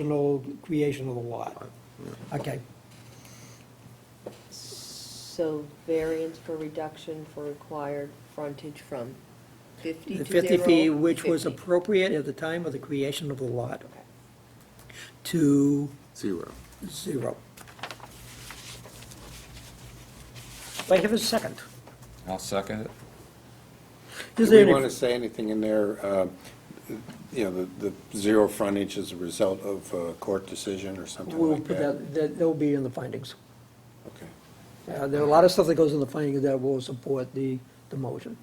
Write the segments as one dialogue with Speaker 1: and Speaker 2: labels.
Speaker 1: original creation of the lot. Okay,
Speaker 2: So variance for reduction for required frontage from 50
Speaker 1: the
Speaker 2: to
Speaker 1: 50 feet,
Speaker 2: zero,
Speaker 1: which was
Speaker 2: 50.
Speaker 1: appropriate at the time of the creation of the lot,
Speaker 2: Okay.
Speaker 1: to
Speaker 3: Zero.
Speaker 1: zero. Do I have a second?
Speaker 4: I'll second it.
Speaker 1: Is
Speaker 3: Do
Speaker 1: there
Speaker 3: we
Speaker 1: any-
Speaker 3: want to say anything in there, uh, you know, the the zero frontage is a result of a court decision or something
Speaker 1: We'll
Speaker 3: like
Speaker 1: put
Speaker 3: that?
Speaker 1: that, that- that'll be in the findings.
Speaker 3: Okay.
Speaker 1: Uh, There are a lot of stuff that goes in the findings that will support the, the motion.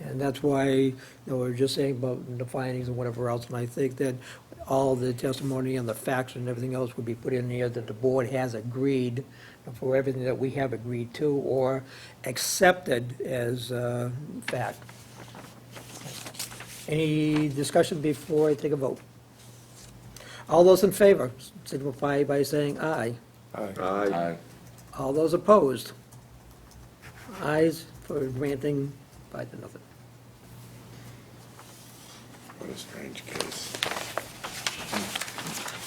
Speaker 1: And that's why, you know, we we're just saying about the findings and whatever else, and I think that all the testimony and the facts and everything else would be put in here that the board has agreed for everything that we have agreed to or accepted as uh, fact. Any discussion before I take a vote? All those in favor signify by saying aye.
Speaker 3: Aye.
Speaker 5: Aye.
Speaker 4: Aye.
Speaker 1: All those opposed? Ayes for granting five to nothing.
Speaker 3: What a strange case.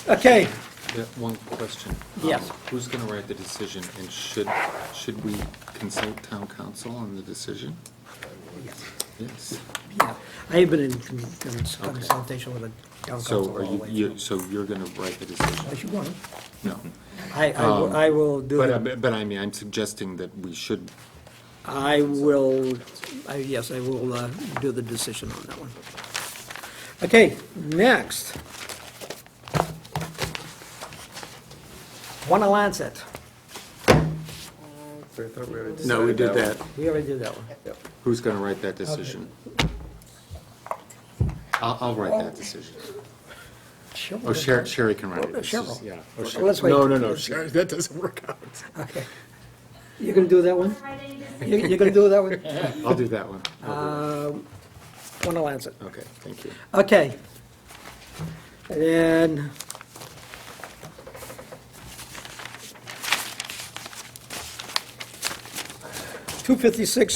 Speaker 1: Okay,
Speaker 5: Yeah, one question.
Speaker 1: Yes.
Speaker 5: Um, Who's going to write the decision, and should, should we consult town council on the decision? Yes.
Speaker 1: yeah, I have been in con- con- consultation with the town
Speaker 5: So
Speaker 1: council
Speaker 5: are
Speaker 1: all the
Speaker 5: you,
Speaker 1: way.
Speaker 5: you, so you're going to write the decision?
Speaker 1: Yes, you want.
Speaker 5: No.
Speaker 1: I, I will- I will do
Speaker 5: Um, But, I-
Speaker 1: it.
Speaker 5: but but I mean, I'm suggesting that we should,
Speaker 1: I will, I, yes, I will uh, do the decision on that one. Okay, next. One Lancet,
Speaker 3: No, we did that.
Speaker 1: we already did that one.
Speaker 5: who's going to write that decision? I'll, I'll write that decision.
Speaker 1: Sure.
Speaker 5: Oh, Sherry, Sherry can write it. It's just-
Speaker 1: Cheryl.
Speaker 5: Yeah.
Speaker 1: Well,
Speaker 5: Oh, Sher-
Speaker 1: let's wait.
Speaker 5: No, no, no, Sherry, that doesn't work out.
Speaker 1: Okay. You're gonna do that one? You- You're gonna do that one?
Speaker 5: I'll do that one. I'll
Speaker 1: Uh, One Lancet.
Speaker 5: do it. Okay, thank you.
Speaker 1: Okay. And then... Two fifty-six,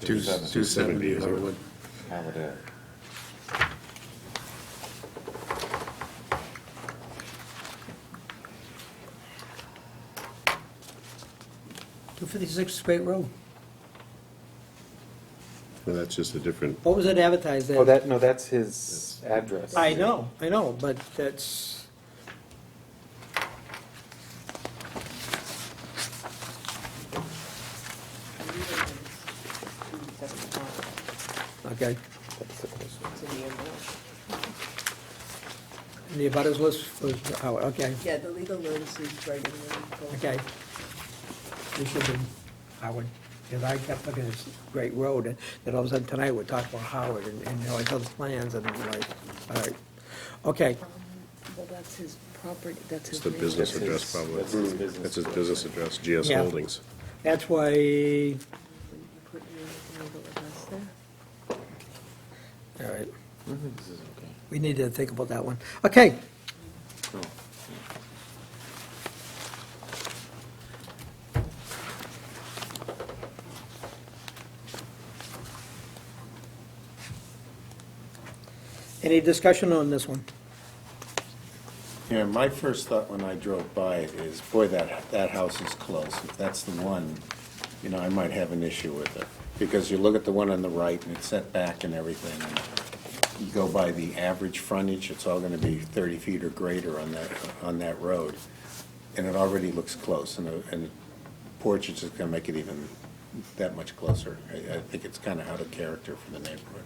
Speaker 3: Two
Speaker 4: seven.
Speaker 3: two seventy uh, is what
Speaker 4: How would it?
Speaker 1: two fifty-six Straight Road.
Speaker 6: Well, that's just a different,
Speaker 1: What was it advertised
Speaker 4: Oh,
Speaker 1: at?
Speaker 4: that, no, that's his address.
Speaker 1: I know, I know, but that's, okay. And The abutters list was, oh, okay,
Speaker 2: Yeah, the legal notice is right in there.
Speaker 1: okay. This should have been Howard, because I kept looking at this great road, and then all of a sudden tonight we're talking about Howard, and, and, you know, I saw the plans, and I'm like, all right. Okay,
Speaker 2: Um, Well, that's his property, that's his.
Speaker 6: it's the
Speaker 2: name.
Speaker 6: business
Speaker 4: That's his-
Speaker 6: address probably.
Speaker 4: that's his business
Speaker 6: That's his business address, GS
Speaker 1: Yeah.
Speaker 6: Holdings.
Speaker 1: that's why
Speaker 2: Wouldn't you put your legal address there?
Speaker 1: All right. We need to think about that one. Okay,
Speaker 5: Oh,
Speaker 1: any discussion on this one?
Speaker 3: Yeah, my first thought when I drove by it is, boy, that, that house is close. If that's the one, you know, I might have an issue with it. Because you look at the one on the right and it's set back and everything. and You go by the average frontage, it's all gonna be thirty feet or greater on that, on that road. And it already looks close and the, and the porch is just gonna make it even that much closer. I, I think it's kinda out of character for the neighborhood.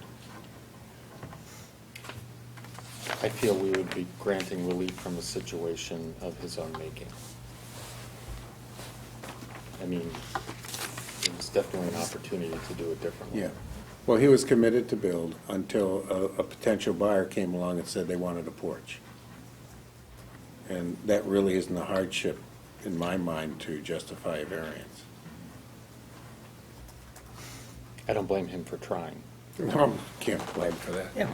Speaker 7: I feel we would be granting relief from a situation of his own making. I mean, it was definitely an opportunity to do it differently.
Speaker 3: Yeah. Well, he was committed to build until a, a potential buyer came along and said they wanted a porch. And that really isn't a hardship, in my mind, to justify a variance.
Speaker 7: I don't blame him for trying,
Speaker 3: Um, Can't blame for that.
Speaker 1: Yeah.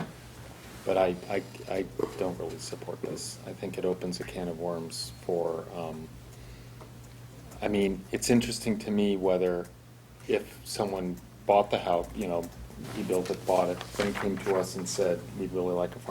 Speaker 7: but I, I, I don't really support this. I think it opens a can of worms for, um, I mean, it's interesting to me whether if someone bought the house, you know, he built it, bought it, then came to us and said, we'd really like a farm